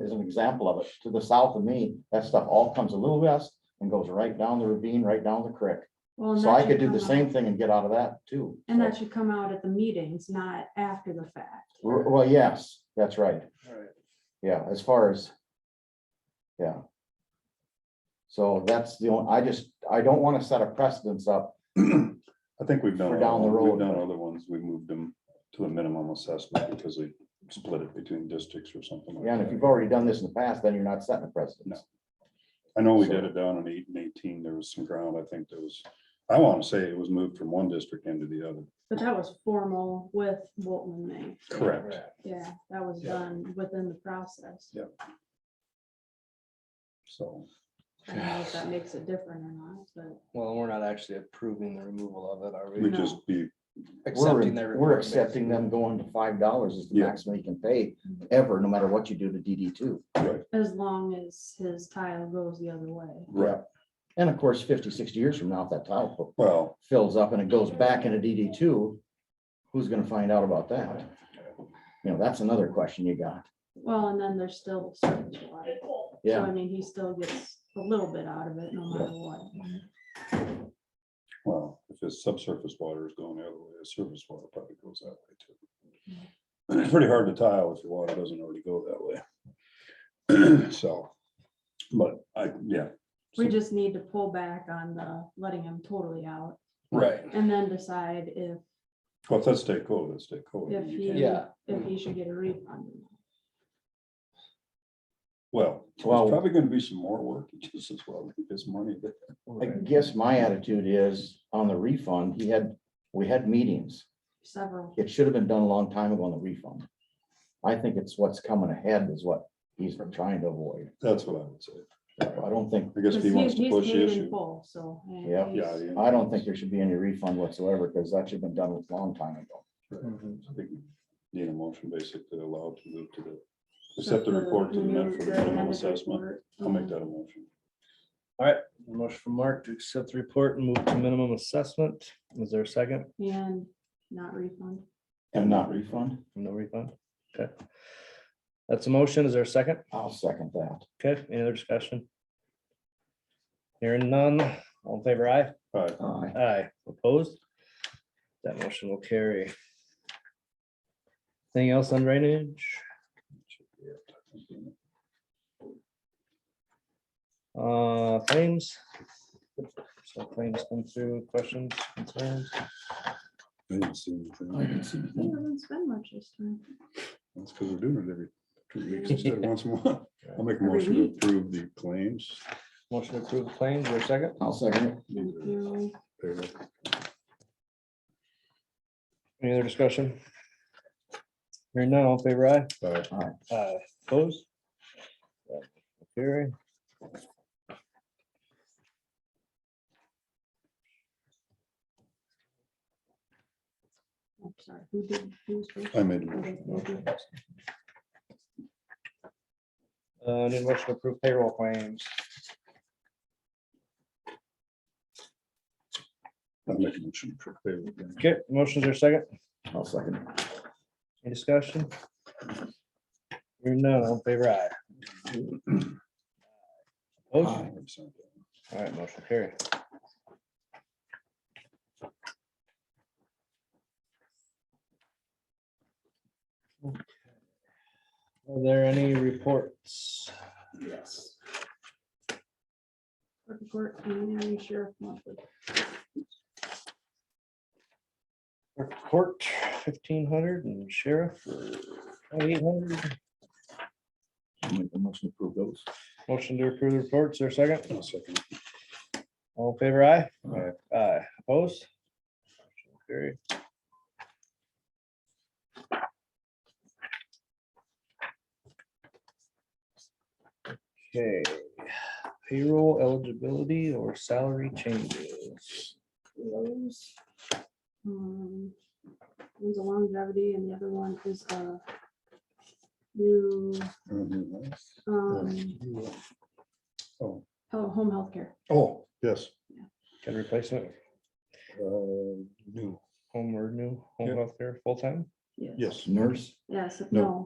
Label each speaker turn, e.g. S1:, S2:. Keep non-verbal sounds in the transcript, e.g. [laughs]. S1: is an example of it. To the south of me, that stuff all comes a little west and goes right down the ravine, right down the creek.
S2: Well, and
S1: So
S2: that
S1: I
S2: should
S1: could do
S2: come
S1: the
S2: out-
S1: same thing and get out of that too.
S2: And that
S1: So-
S2: should come out at the meetings, not after the fact.
S1: Well, yes, that's right.
S3: Alright.
S1: Yeah, as far as. Yeah. So that's the only, I just, I don't want to set a precedence up.
S4: I think we've done,
S1: For
S4: all-
S1: down the road,
S4: we've done
S1: but-
S4: other ones, we moved them to a minimum assessment because we split it between districts or something. like
S1: Yeah, And if
S4: that.
S1: you've already done this in the past, then you're not setting a precedence.
S4: I know we
S1: so-
S4: did it down on eight and eighteen, there was some ground, I think there was, I want to say it was moved from one district into the other.
S2: But that was formal with Bolton May.
S4: Correct.
S2: Yeah, that was
S3: Yeah.
S2: done within the process.
S4: So,
S2: I don't know if that makes it different or not, but.
S3: Well, we're not actually approving the removal of it, are
S4: we
S3: we?
S2: No.
S4: just be,
S1: We're,
S3: Accepting their.
S1: we're
S3: report,
S1: accepting them going to five dollars is the
S4: Yeah.
S1: maximum you can pay ever, no matter what you do to DD two.
S2: As long as his tile goes the other way.
S4: right,
S1: And of course, 50, 60 years from now, if that tile fo-
S4: well,
S1: fills up and it goes back into DD two, who's gonna find out about that? You know, that's another question you got.
S2: Well, and then there's still the surface water. So
S1: Yeah,
S2: I mean, he still gets a little bit out of it no matter what.
S4: well, if it's subsurface water is going the other way, the surface water probably goes that way too.
S1: Mm-hmm.
S4: It's pretty hard to tile if your water doesn't already go that way. [clears throat] So, but I, yeah.
S2: We
S4: So-
S2: just need to pull back on the letting him totally out
S3: Right,
S2: and then decide if,
S4: Well, if that's state code, that's state code.
S2: if
S4: You
S2: he,
S4: can't-
S3: Yeah.
S2: if he should get a refund.
S4: Well,
S1: Well-
S4: there's probably gonna be some more work, [laughs] just as well, with this money, but
S1: I guess my attitude is on the refund, he had, we had meetings.
S2: Several,
S1: It should have been done a long time ago on the refund. I think it's what's coming ahead is what he's been trying to avoid.
S4: that's what I would say.
S1: I don't think,
S4: I guess
S2: because
S4: if he wants to
S2: he's
S4: push
S2: paid
S4: the
S2: in
S4: issue.
S2: full, so. I mean,
S1: Yeah.
S4: Yeah.
S2: he's-
S4: yeah.
S1: I don't think there should be any refund whatsoever, because that should have been done a long time ago.
S3: Mm-hmm.
S4: I think we Need a motion basically allowed to move to the, accept the report to the
S2: new-
S4: Medford
S2: the
S4: minimum
S2: amended
S4: assessment.
S2: report,
S4: I'll make
S2: mhm.
S4: that a motion.
S3: motion from Mark to accept the report and move to minimum assessment. Is there a second?
S2: And not refund.
S1: And not refund,
S3: No refund? Okay. That's a motion. Is there a second?
S1: I'll second that.
S3: Okay, any other discussion? Hearing none, all in favor, aye?
S4: All right,
S1: Aye.
S3: Aye, opposed? That motion will carry. Anything else on drainage? Uh, claims? So claims come through, questions, concerns?
S4: I didn't see anything. I didn't see
S2: He
S4: anything.
S2: doesn't spend much this time.
S4: That's because we're doing it every two [laughs] weeks instead of once a month. I'll make a
S2: Every
S4: motion to
S2: week.
S4: approve the claims.
S3: Motion to approve claims, or second?
S1: I'll second it.
S2: Thank you.
S4: There,
S3: Any other discussion? Hearing none, all in favor aye?
S4: all right.
S3: Aye. Opposed? That will Carry.
S2: I'm sorry, who did, who's first?
S4: I made a motion.
S2: Okay, okay.
S3: Uh, need a motion to approve payroll claims.
S4: I'll make a motion to approve payroll claims.
S3: Okay, motions are second,
S1: I'll second it.
S3: any discussion? Hearing none, all in favor aye? Opposed? All right, motion carry. Okay. Are there any reports?
S2: Yes. Circuit Court, preliminary sheriff monthly.
S3: Court fifteen hundred and sheriff twenty-eight hundred.
S1: I'll make a motion to approve those.
S3: Motion to approve the reports, or second?
S4: I'll second.
S3: All in favor aye?
S4: Aye.
S3: Aye, opposed? Motion Carry. Okay, payroll eligibility or salary changes.
S2: those. Um, One's a longevity and the other one is a new, um,
S4: Oh,
S2: oh, home health care.
S4: oh, yes,
S3: Can replacement,
S4: uh, new,
S3: home or new, home
S4: Yeah.
S3: health care, full-time?
S4: yes.
S1: Nurse, oh,
S2: Yes,
S4: No.
S2: no,